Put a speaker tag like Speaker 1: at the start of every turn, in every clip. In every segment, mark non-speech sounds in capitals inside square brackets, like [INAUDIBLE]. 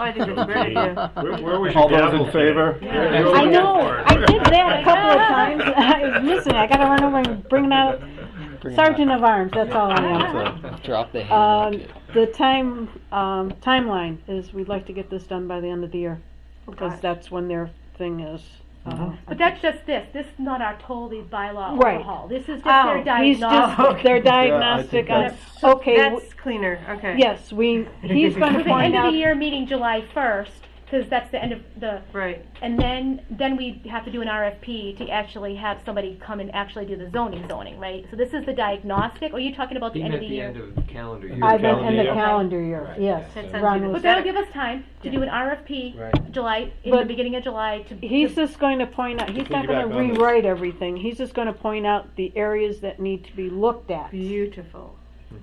Speaker 1: I think it's a great idea.
Speaker 2: Where, where was
Speaker 3: All
Speaker 2: your
Speaker 3: those in
Speaker 2: gavel today?
Speaker 3: favor?
Speaker 2: Where-
Speaker 1: Yeah.
Speaker 2: where was
Speaker 4: I
Speaker 2: your
Speaker 4: know,
Speaker 2: gavel?
Speaker 4: I did that a couple of times. [LAUGHS] I- Listen, I gotta run over and bring it out Sergeant of Arms, that's all I am.
Speaker 5: Drop the
Speaker 4: Um,
Speaker 5: hand.
Speaker 4: the time, um, timeline is we'd like to get this done by the end of the year, because
Speaker 1: Okay.
Speaker 4: that's when their thing is. uh,
Speaker 6: But that's just this, this is not our totally bylaw
Speaker 4: Right.
Speaker 6: overhaul, this is just
Speaker 1: Oh,
Speaker 6: their
Speaker 4: He's
Speaker 6: diagnostic.
Speaker 4: just, their diagnostic on, okay, w-
Speaker 1: That's cleaner, okay.
Speaker 4: yes, we, he's
Speaker 6: For
Speaker 4: gonna
Speaker 6: the end
Speaker 4: point
Speaker 6: of the
Speaker 4: out,
Speaker 6: year meeting July first, cause that's the end of the,
Speaker 1: Right,
Speaker 6: and then, then we have to do an RFP to actually have somebody come and actually do the zoning zoning, right? So this is the diagnostic, or are you talking about the
Speaker 7: He
Speaker 6: end of
Speaker 7: meant
Speaker 6: the
Speaker 7: the
Speaker 6: year?
Speaker 7: end of calendar year.
Speaker 4: I meant in the
Speaker 3: calendar year.
Speaker 4: calendar year,
Speaker 7: Right,
Speaker 4: yes.
Speaker 7: yeah,
Speaker 1: That
Speaker 7: so-
Speaker 1: sounds
Speaker 4: Ron
Speaker 1: good.
Speaker 4: was-
Speaker 6: But that'll give us time to do an RFP,
Speaker 7: Right.
Speaker 6: July, in the
Speaker 4: But-
Speaker 6: beginning of July to.
Speaker 4: He's
Speaker 6: to-
Speaker 4: just going to point out, he's not
Speaker 3: Piggyback
Speaker 4: gonna
Speaker 3: on this.
Speaker 4: rewrite everything, he's just gonna point out the areas that need to be looked at.
Speaker 1: beautiful.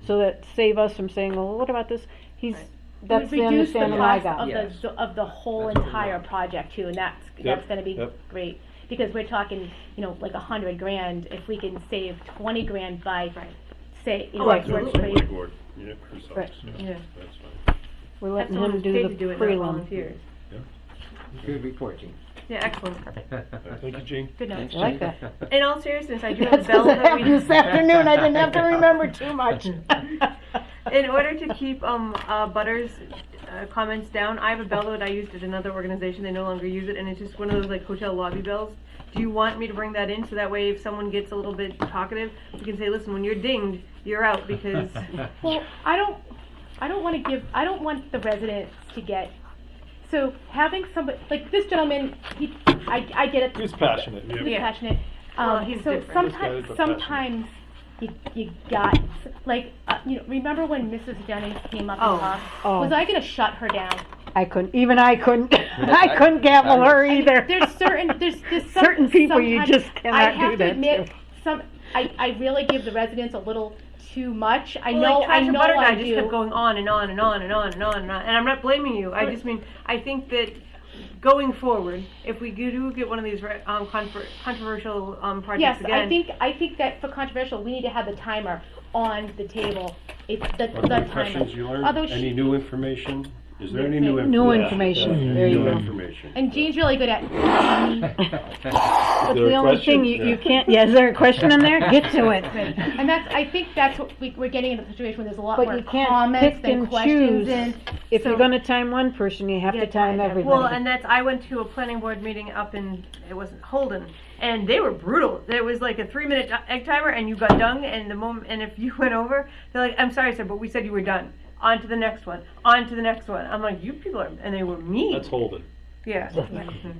Speaker 4: So that save us from saying, well, what about this? He's, that's the
Speaker 6: reduce the
Speaker 4: understanding I
Speaker 6: cost
Speaker 4: got.
Speaker 6: of the,
Speaker 7: Yes.
Speaker 6: zo- of the whole
Speaker 7: That's what we
Speaker 6: entire
Speaker 7: want.
Speaker 6: project too, and that's, that's gonna be
Speaker 3: yep.
Speaker 6: great. Because we're talking, you know, like a hundred grand, if we can save twenty grand by, say, you know,
Speaker 1: Oh,
Speaker 6: it's worth
Speaker 1: absolutely.
Speaker 6: three-
Speaker 8: board, yeah,
Speaker 4: Right.
Speaker 8: yourselves,
Speaker 1: Yeah.
Speaker 8: yeah, that's fine.
Speaker 4: We're
Speaker 1: That's
Speaker 4: letting
Speaker 1: the one
Speaker 4: him
Speaker 1: who's paid to
Speaker 4: do
Speaker 1: do
Speaker 4: the
Speaker 1: it, not
Speaker 4: prelim.
Speaker 1: volunteers.
Speaker 7: Good report, Gene.
Speaker 1: Yeah, excellent, perfect.
Speaker 3: Thank you, Gene.
Speaker 1: Good night.
Speaker 4: I like that.
Speaker 1: In all seriousness, I do have a
Speaker 4: That's
Speaker 1: bell
Speaker 4: because I
Speaker 1: that
Speaker 4: have
Speaker 1: we,
Speaker 4: [LAUGHS] this afternoon, I
Speaker 7: [LAUGHS]
Speaker 4: didn't have to remember too much.
Speaker 1: in order to keep, um, uh, Butters' uh, comments down, I have a bell that I used at another organization, they no longer use it, and it's just one of those like hotel lobby bells. Do you want me to bring that in, so that way if someone gets a little bit talkative, we can say, listen, when you're dinged, you're out, because
Speaker 6: Well, I don't, I don't wanna give, I don't want the residents to get, so having somebody, like this gentleman, he, I, I get it.
Speaker 3: He's passionate.
Speaker 6: He was
Speaker 1: Yeah.
Speaker 6: passionate.
Speaker 1: Well,
Speaker 6: Um,
Speaker 1: he's
Speaker 6: so
Speaker 1: different.
Speaker 6: sometimes,
Speaker 3: This guy is a
Speaker 6: sometimes you, you got like uh, you know. Remember when Mrs. Jennings came up
Speaker 1: Oh.
Speaker 6: and talked?
Speaker 4: Oh.
Speaker 6: Was I gonna shut her down?
Speaker 4: I couldn't, even I couldn't, [LAUGHS] I couldn't gavel her
Speaker 6: I mean,
Speaker 4: either.
Speaker 6: There's certain there's,
Speaker 4: [LAUGHS]
Speaker 6: there's some,
Speaker 4: Certain people you
Speaker 6: sometimes-
Speaker 4: just cannot
Speaker 6: I have
Speaker 4: do
Speaker 6: to
Speaker 4: that
Speaker 6: admit,
Speaker 4: to.
Speaker 6: some I, I really give the residents a little too much. I
Speaker 1: Well,
Speaker 6: know
Speaker 1: like,
Speaker 6: I
Speaker 1: Tasha
Speaker 6: know
Speaker 1: Butternut
Speaker 6: I
Speaker 1: just
Speaker 6: do.
Speaker 1: kept going on and on and on and on and on and on. And I'm not blaming you. I just mean I think that going forward, if we do get one of these re- um, confer- controversial um, projects
Speaker 6: yes,
Speaker 1: again,
Speaker 6: I think I think that for controversial, we need to have the timer on the table. It's the,
Speaker 8: What new
Speaker 6: the timer.
Speaker 8: questions you learned,
Speaker 6: Although
Speaker 8: any
Speaker 6: she,
Speaker 8: new information? Is there any
Speaker 6: Yes,
Speaker 8: new
Speaker 6: I-
Speaker 8: information?
Speaker 4: New information, there you
Speaker 8: New
Speaker 4: go.
Speaker 8: information.
Speaker 6: and Jean's really
Speaker 8: [LAUGHS]
Speaker 6: good at
Speaker 4: That's
Speaker 3: there a
Speaker 4: the only
Speaker 3: question?
Speaker 4: thing, you, you can't, yeah, is there a question in there? Get to
Speaker 3: [LAUGHS]
Speaker 4: it.
Speaker 6: And that's, I think that's what we, we're getting into a situation where there's a lot
Speaker 4: But
Speaker 6: more
Speaker 4: you can't
Speaker 6: comments
Speaker 4: pick
Speaker 6: than
Speaker 4: and
Speaker 6: questions
Speaker 4: choose.
Speaker 6: and.
Speaker 4: If
Speaker 1: So-
Speaker 4: you're gonna time one person, you have
Speaker 1: Yeah,
Speaker 4: to time
Speaker 1: Well,
Speaker 4: everybody.
Speaker 1: and that's I went to a planning board meeting up in it wasn't Holden, and they were brutal. There was like a three minute egg timer, and you got done. And the moment, and if you [LAUGHS] went over, they're like, "I'm sorry, sir, but we said you were done." On to the next one. On to the next one. I'm like, "You people are," and they were mean.
Speaker 3: That's Holden.
Speaker 1: yeah. Mhm.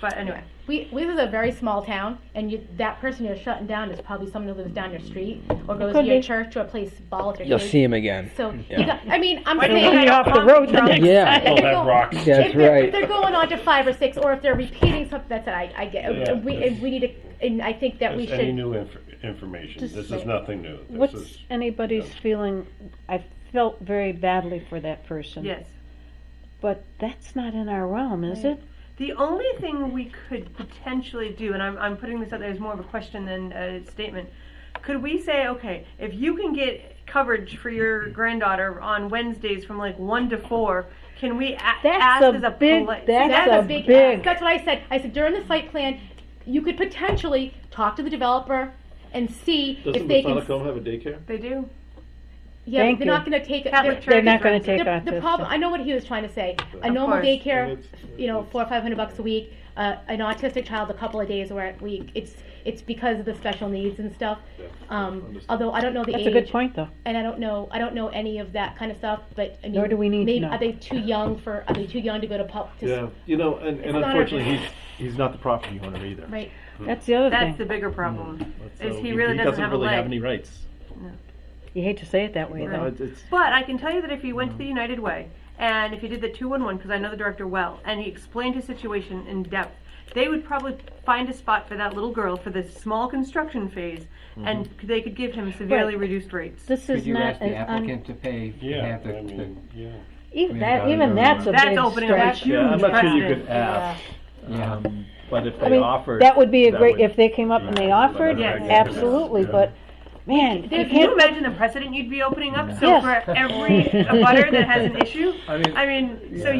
Speaker 1: But anyway.
Speaker 6: We, we live in a very small town, and you, that person you're shutting down is probably someone who lives down your street or goes to
Speaker 4: could
Speaker 6: your
Speaker 4: be.
Speaker 6: church or plays ball with your
Speaker 5: You'll
Speaker 6: kids.
Speaker 5: see him again.
Speaker 6: So, you
Speaker 5: Yeah.
Speaker 6: got- I mean, I'm
Speaker 1: Why do you
Speaker 6: saying.
Speaker 1: think I
Speaker 4: off
Speaker 6: [LAUGHS]
Speaker 4: the
Speaker 1: got
Speaker 4: road the
Speaker 1: drunk?
Speaker 4: next
Speaker 5: Yeah.
Speaker 6: if
Speaker 8: All
Speaker 6: they're
Speaker 8: Oh, that
Speaker 6: going-
Speaker 8: rocks.
Speaker 5: That's
Speaker 6: if they're,
Speaker 5: right.
Speaker 6: If they're going on to five or six, or if they're repeating something, that's it. I, I get.
Speaker 8: Yeah.
Speaker 6: we, and we need to, and I think that we
Speaker 8: Is
Speaker 6: should.
Speaker 8: Any new inf- information?
Speaker 4: Just
Speaker 8: This
Speaker 4: say-
Speaker 8: is nothing new. This
Speaker 4: What's
Speaker 8: is,
Speaker 4: anybody's feeling? I felt very badly for that person.
Speaker 1: Yes.
Speaker 4: But that's not in our realm, is it?
Speaker 1: The only thing we could potentially do, and I'm, I'm putting this out there as more of a question than a statement, could we say, okay, if you can get coverage for your granddaughter on Wednesdays from like 1 to 4, can we a- ask
Speaker 4: a
Speaker 1: as a
Speaker 4: big-
Speaker 1: poli-
Speaker 4: that's
Speaker 6: That's
Speaker 4: a
Speaker 6: a big,
Speaker 4: big-
Speaker 6: ask. That's what I said. I said during the site plan, you could potentially talk to the developer and see if
Speaker 3: Doesn't
Speaker 6: they can.
Speaker 3: Masonic Home have a daycare?
Speaker 1: They do.
Speaker 6: Yeah,
Speaker 4: Thank
Speaker 6: but they're
Speaker 4: you.
Speaker 6: not going to take it.
Speaker 1: Catholic
Speaker 6: they're-
Speaker 1: Church
Speaker 4: They're not going
Speaker 1: runs
Speaker 4: to
Speaker 1: it.
Speaker 4: take
Speaker 6: the,
Speaker 4: off
Speaker 6: the
Speaker 4: this.
Speaker 6: problem. I know what he was trying to say. A normal
Speaker 1: course.
Speaker 6: daycare,
Speaker 3: it's-
Speaker 6: you know, four or five hundred bucks a week. Uh, an autistic child, a couple of days or a week. It's it's because of the special needs and stuff. Um, although I don't know the
Speaker 4: That's
Speaker 6: age,
Speaker 4: a good point, though.
Speaker 6: and I don't know I don't know any of that kind of stuff. But I mean,
Speaker 4: Nor do we need to
Speaker 6: maybe,
Speaker 4: know.
Speaker 6: Are they too young for? Are they too young to go to pub? To,
Speaker 3: Yeah, you know, and, and
Speaker 6: not a-
Speaker 3: unfortunately, he's, he's not the property owner either.
Speaker 6: Right.
Speaker 7: Hmm.
Speaker 4: That's the other
Speaker 1: That's the
Speaker 4: thing.
Speaker 1: bigger problem.
Speaker 3: So
Speaker 1: Is he really doesn't have Mm, a
Speaker 3: really
Speaker 1: leg.
Speaker 3: have any rights.
Speaker 4: You hate to say it that way,
Speaker 3: No,
Speaker 4: though.
Speaker 3: it's- it's-
Speaker 1: But I can tell you that if he went to the
Speaker 7: Mm.
Speaker 1: United Way and if he did the 211, because I know the director well, and he explained his situation in depth, they would probably find a spot for that little girl for this small construction phase, and
Speaker 7: Mm-hmm.
Speaker 1: they could give him severely
Speaker 4: Right.
Speaker 1: reduced rates.
Speaker 4: This
Speaker 7: Could
Speaker 4: is
Speaker 7: you
Speaker 4: not
Speaker 7: ask the
Speaker 4: an un-
Speaker 7: applicant to pay
Speaker 8: yeah,
Speaker 7: half the,
Speaker 8: I mean, yeah.
Speaker 4: even
Speaker 7: mean,
Speaker 4: that
Speaker 7: gotta
Speaker 4: even
Speaker 7: go
Speaker 4: that's a
Speaker 1: That's
Speaker 4: big
Speaker 1: opening up a
Speaker 4: stretch.
Speaker 3: yeah, I'm not sure you
Speaker 1: precedent.
Speaker 3: could ask,
Speaker 2: uh,
Speaker 7: yeah.
Speaker 3: um, but if
Speaker 4: I
Speaker 3: they
Speaker 4: mean,
Speaker 3: offered.
Speaker 4: that would be a
Speaker 3: that
Speaker 4: great
Speaker 3: would-
Speaker 4: if they came up and they
Speaker 3: Yeah.
Speaker 4: offered.
Speaker 1: Yes.
Speaker 4: Absolutely,
Speaker 3: Yeah.
Speaker 4: but man, you
Speaker 1: Can you
Speaker 4: can't,
Speaker 1: imagine the precedent you'd be opening up? So
Speaker 4: Yes. [LAUGHS]
Speaker 1: for every butter that has an issue,
Speaker 7: I mean,
Speaker 1: I mean, so